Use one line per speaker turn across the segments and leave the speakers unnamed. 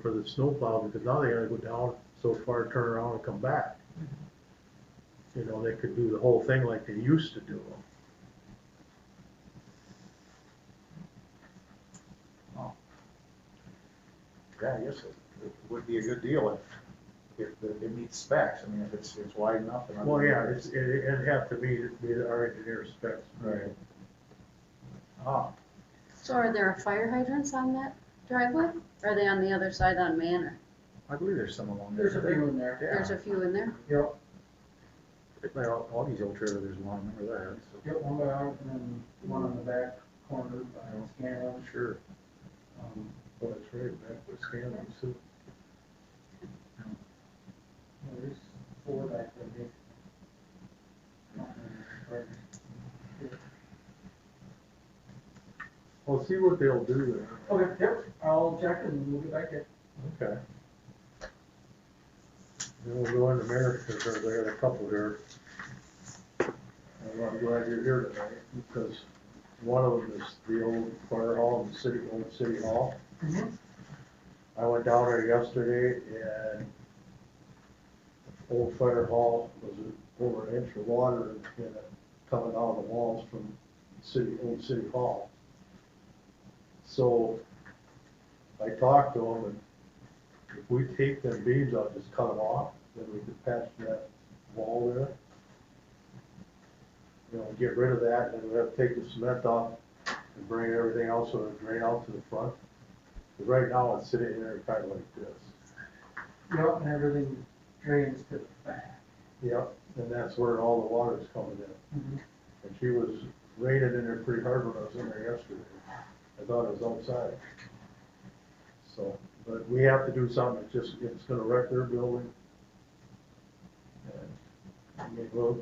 for the snowplow, because now they gotta go down so far, turn around and come back. You know, they could do the whole thing like they used to do them.
Yeah, I guess it, it would be a good deal if, if the- it meets specs, I mean, if it's, it's wide enough and.
Well, yeah, it's, it- it'd have to be, be our engineer specs.
Right. Ah,
So are there fire hydrants on that driveway? Are they on the other side on Manor?
I believe there's some along there.
There's a big one there.
There's a few in there?
Yeah. Well, all- all these old trailers, there's one, I remember that, so,
Get one out and then one on the back corner by Scanlon.
sure.
Um,
Well, that's Oh, right, back with Scanlon, so.
There's four back there. big.
Well, see what they'll do
Okay, yep, I'll check and we'll get back to
there. Okay. Then we'll go into America, because they had a couple here. And I'm glad you're here tonight, because one of them is the old fire hall and city, old city hall.
you.
I went down there yesterday and old fire hall was over an inch of water in it coming out of the walls from city, old city hall. So I talked to him and if we take them beams out, just cut them off, then we could patch that wall there. You know, get rid of that and we have to take the cement off and bring everything else sort of drain out to the front. Because right now, it's sitting in there kind of like this.
Yep, and everything drains to the back.
Yep. And that's where all the water is coming in.
Mm-hmm.
And she was raining in there pretty hard when I was in there yesterday. I thought it was outside. So, but we have to do something, it's just, it's gonna wreck their building. And, I mean, we'll,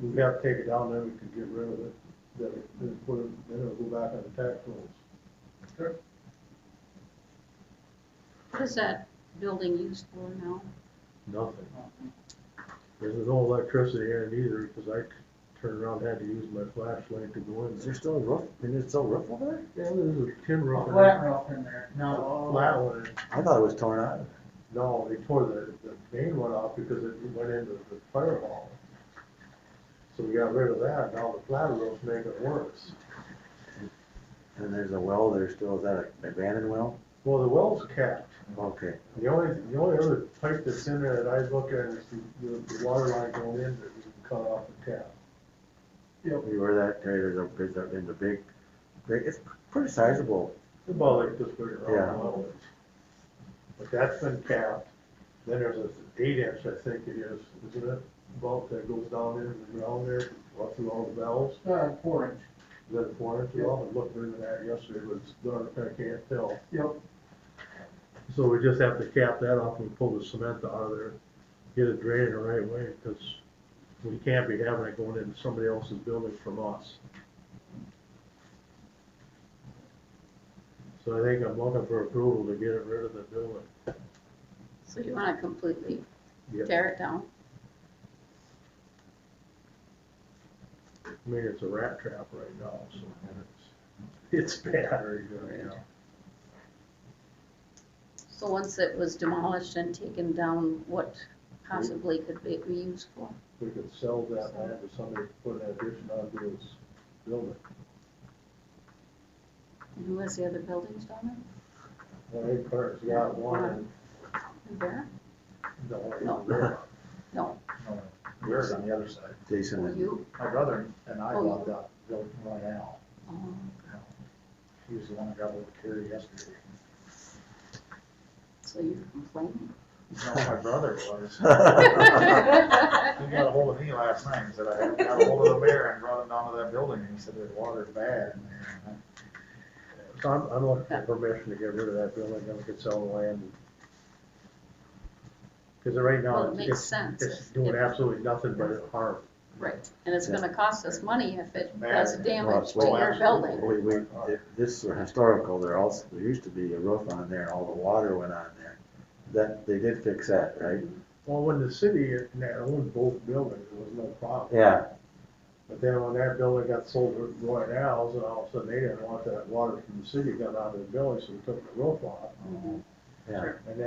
we have to take it down, then we can get rid of it, then, it- then put it, then it'll go back on the tax rolls.
What is that building used for now?
Nothing. There's no electricity in it either, because I c- turned around, had to use my flashlight to go in
Is
there.
there still a roof? Is there still a roof over there?
Yeah, there's a tin roof. in
Flat
there.
roof in there,
A
no.
Flat one, and
I thought it was torn out.
no, they tore the, the main one off because it went into the fire hall. So we got rid of that, now the flat roof's making it worse.
And there's a well there still. Is that an abandoned well?
Well, the well's capped,
Okay.
the only, the only other pipe that's in there that I look at is the, the, the water line going in that we can cut off the tap.
You were that day, there's a, there's a, there's a big, big, it's pretty sizable.
About like this big
Yeah.
around the wall is. But that's been capped, then there's an eight inch, I think it is, isn't it, bulk that goes down into the ground there, up through all the valves,
Uh, four inch,
is that a four inch well? I looked into that yesterday, but it's dark, I can't tell.
yep.
So we just have to cap that off and pull the cement out of there, get it drained the right way, because we can't be having it going into somebody else's building from us. So I think I'm looking for approval to get it rid of the building.
So you wanna completely
Yep.
tear it down?
I mean, it's a rat trap right now, so it's, it's bad right now.
So once it was demolished and taken down, what possibly could be be used for?
We could sell that land to somebody to put an addition onto his building.
And who has the other buildings down
Well, eight cars, got one,
there? There?
and the one.
No. No,
Yours on the other side.
Jason
Well,
and
you?
My brother and I
Oh,
bought
you-
that building right now.
Um,
He was the one that got over here yesterday.
So you're complaining?
No, my brother was.
Well,
He got a hold of me last night and said, I got a hold of the mayor and brought him down to that building and he said, the water's bad. in there." And
So I'm, I'm looking for permission to get rid of that building, then we could sell the land. Cause right now,
it makes
it's,
sense.
it's
if-
doing
if-
absolutely nothing but harm.
Right, and it's gonna cost us money if it
Bad.
does damage to
Well,
your building.
we, we, if this were historical, there also, there used to be a roof on there and all the water went on there. That, they did fix that, right?
Well, when the city owned both buildings, there was no problem.
Yeah,
But then when that building got sold to Roy Al's, and all of a sudden they didn't want that water from the city got out of the building, so we took the roof off.
Mhm.
yeah.
And then